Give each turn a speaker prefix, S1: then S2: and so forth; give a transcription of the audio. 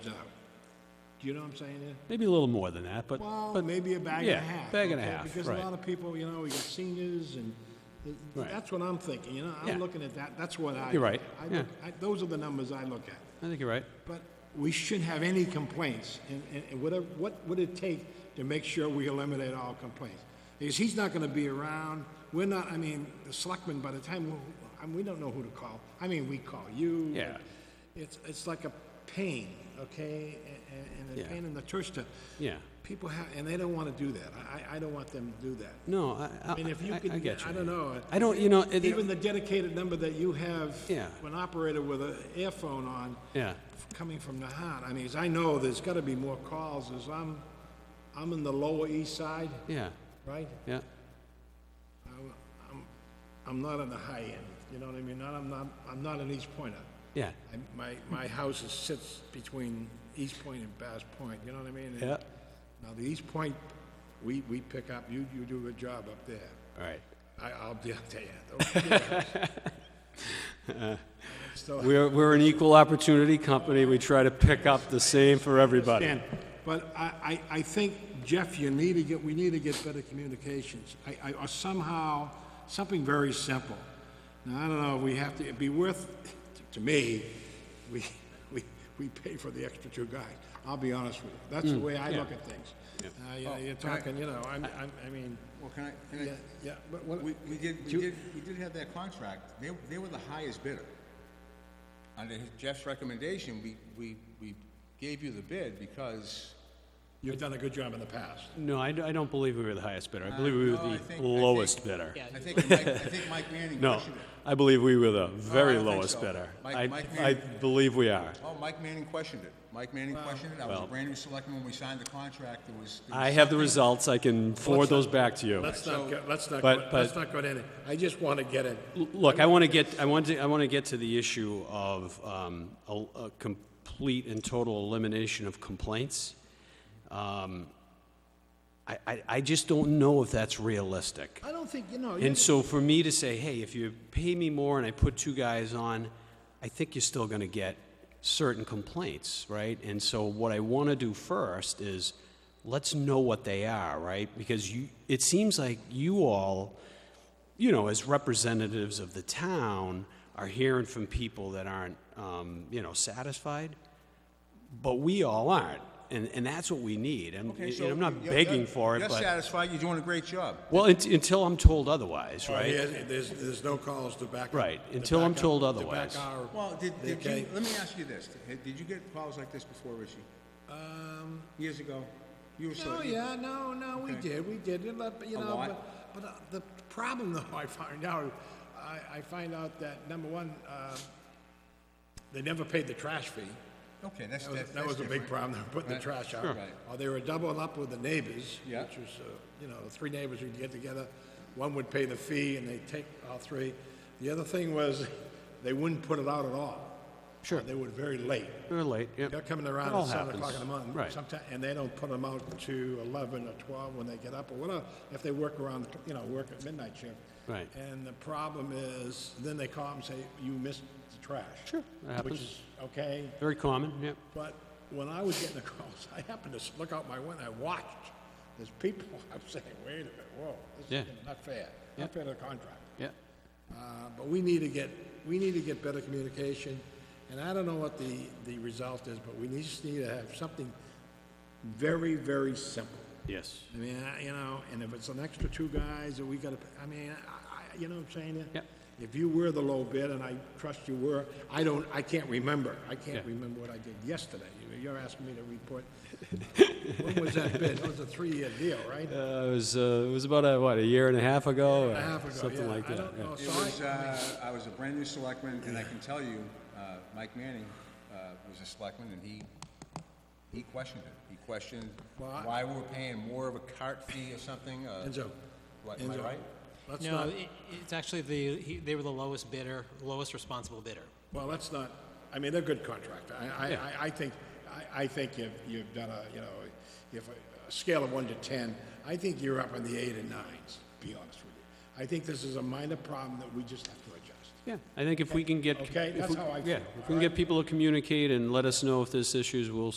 S1: though. Do you know what I'm saying? Ed?
S2: Maybe a little more than that, but,
S1: Well,
S2: but
S1: maybe a bag
S2: yeah,
S1: and a half.
S2: bag and a
S1: okay?
S2: half,
S1: Because
S2: right.
S1: a lot of people, you know, we got seniors and th- th-
S2: Right.
S1: that's what I'm thinking, you know,
S2: Yeah.
S1: I'm looking at that, that's what I.
S2: You're right,
S1: I look- I- Those are the numbers I look at.
S2: I think you're right.
S1: But we shouldn't have any complaints, and, and- and whatever, what would it take to make sure we eliminate all complaints? Because he's not gonna be around, we're not, I mean, the selectmen, by the time, we- I mean, we don't know who to call. I mean, we call you.
S2: Yeah.
S1: It's, it's like a pain, okay, and, and a
S2: Yeah.
S1: pain in the tush to.
S2: Yeah.
S1: People have, and they don't wanna do that, I, I- I don't want them to do that.
S2: No, I, I,
S1: I mean, if you
S2: I-
S1: could,
S2: I get you.
S1: I don't know.
S2: I don't, you know, it-
S1: Even the dedicated number that you have.
S2: Yeah.
S1: An operator with an earphone on.
S2: yeah,
S1: Coming from the heart, I mean, 'cause I know there's gotta be more calls, as I'm, I'm in the lower east side,
S2: yeah,
S1: right?
S2: yeah,
S1: I'm not on the high end, you know what I mean, not, I'm not, I'm not an East Pointer.
S2: yeah,
S1: I- My, my house is, sits between East Point and Bass Point, you know what I mean?
S2: yeah.
S1: Now, the East Point, we, we pick up, you, you do a good job up there.
S2: All right.
S1: I, I'll be up there. Don't worry. So-
S2: We're, we're an equal opportunity company. We try to pick up the same for everybody.
S1: Dan, But I, I, I think, Jeff, you need to get, we need to get better communications. I, I, or somehow, something very simple. Now, I don't know, we have to, it'd be worth, to me, we, we, we pay for the extra two guys. I'll be honest with you. That's
S2: Mm.
S1: the way I look at things. Uh, you know, you're talking, you know, I'm, I'm, I mean,
S3: Well, can I, can
S1: yeah,
S3: I,
S1: yeah, but what,
S3: we, we did, we did, we did have that contract, they, they were the highest bidder. Under his- Jeff's recommendation, we, we, we gave you the bid because.
S1: you've done a good job in the past.
S2: No, I, I don't believe we were the highest bidder. I believe we
S3: Uh, no, I
S2: were
S3: think- I
S2: the
S3: think-
S2: lowest bidder.
S3: I think Mike, I think Mike Manning
S2: No,
S3: questioned it.
S2: I believe we were the very
S3: Uh, don't think
S2: lowest
S3: so.
S2: bidder.
S3: Mike-
S2: I,
S3: Mike
S2: I
S3: Manning-
S2: believe we are.
S3: Oh, Mike Manning questioned it. Mike Manning questioned it. I was a
S2: Well-
S3: brand new selectman when we signed the contract. There was. there
S2: I
S3: was
S2: have the
S3: something-
S2: results. I can forward those back to you.
S1: Let's not, go- let's not,
S2: But-
S1: go-
S2: but-
S1: let's not go to any, I just want to get it.
S2: Look, I want to get, I want to, I want to get to the issue of um, a a complete and total elimination of complaints. Um, I, I, I just don't know if that's realistic.
S1: I don't think, you know. you-
S2: And so for me to say, hey, if you pay me more and I put two guys on, I think you're still going to get certain complaints, right? And so what I want to do first is let's know what they are, right? Because you, it seems like you all, you know, as representatives of the town, are hearing from people that aren't, um, you know, satisfied, but we all aren't. And, and that's what we need. And,
S3: Okay,
S2: and
S3: so
S2: I'm not
S3: you're-
S2: begging
S3: you're-
S2: for it,
S3: You're
S2: but.
S3: satisfied. You're doing a great job.
S2: well, unt- until I'm told
S3: Oh,
S2: otherwise, right?
S1: Oh, Yeah, There's, there's no calls to back.
S2: Right,
S1: to
S2: until I'm
S1: back
S2: told
S1: our- to back
S2: otherwise.
S1: our-
S3: Well, did, did you,
S1: Okay.
S3: let me ask you this. Did- Did you get calls like this before, Richie? Um. Years ago? You were
S1: No,
S3: so.
S1: yeah, no, no, we
S3: Okay.
S1: did, we did, it, but, you
S3: A
S1: know,
S3: lot?
S1: but, but uh, the problem though, I find out, I, I find out that, number one, uh, they never paid the trash fee.
S3: Okay, that's,
S1: That was,
S3: that's.
S1: that was a big
S3: different.
S1: problem, they were putting the
S3: Right.
S1: trash out.
S3: Sure. Right.
S1: Or they were doubling up with the neighbors, which
S3: Yeah.
S1: was, uh, you know, three neighbors would get together, one would pay the fee and they'd take all three. The other thing was, they wouldn't put it out at all.
S2: Sure.
S1: They were very late.
S2: They're late, yep.
S1: They're coming
S2: It
S1: around
S2: all
S1: at seven
S2: happens.
S1: o'clock in the morning.
S2: Right.
S1: sometime- And they don't put them out to eleven or twelve when they get up or whatever, if they work around, the cl- you know, work at midnight shift.
S2: Right.
S1: And the problem is, then they call and say, you missed the trash.
S2: Sure, that happens.
S1: Which is, okay,
S2: Very common, yep.
S1: but when I was getting the calls, I happened to s- look out my window, I watched, there's people, I'm saying, wait a minute, whoa,
S2: Yeah.
S1: this is not fair,
S2: Yeah.
S1: not fair to the contractor.
S2: Yep.
S1: Uh, But we need to get, we need to get better communication, and I don't know what the, the result is, but we need- just need to have something very, very simple.
S2: Yes.
S1: I mean, I- you know, and if it's an extra two guys, or we gotta, I mean, I, I, you know what I'm saying?
S2: Yep.
S1: If you were the low bid, and I trust you were, I don't, I can't remember, I can't
S2: Yeah.
S1: remember what I did yesterday. You- You're asking me to report. When was that bid? That was a three-year deal, right?
S2: Uh, it was, uh, it was about, a, what, a year and a half ago?
S1: A
S2: or
S1: half ago,
S2: Something
S1: yeah.
S2: like
S1: I
S2: that,
S1: don't
S2: yeah.
S1: know,
S3: It
S1: so I-
S3: was, uh, I was a brand new selectman, and I can tell you, uh, Mike Manning, uh, was a selectman, and he, he questioned it. He questioned
S1: Well, I-
S3: why we're paying more of a cart fee or something, uh.
S1: Enzo.
S3: What, am I
S1: Enzo,
S3: right?
S1: Let's
S4: No,
S1: not,
S4: it- it's actually the, he- they were the lowest bidder, lowest responsible bidder.
S1: well, let's not, I mean, they're good contractor. I, I, I, I think, I, I think you've, you've done a, you know, if, a- a scale of one to ten, I think you're up in the eight and nines, to be honest with you. I think this is a minor problem that we just have to adjust.
S2: Yeah, I think if we can get.
S1: Okay,
S2: if
S1: that's
S2: we-
S1: how I
S2: Yeah,
S1: feel,
S2: if we can get people to communicate and let us know if there's issues, we'll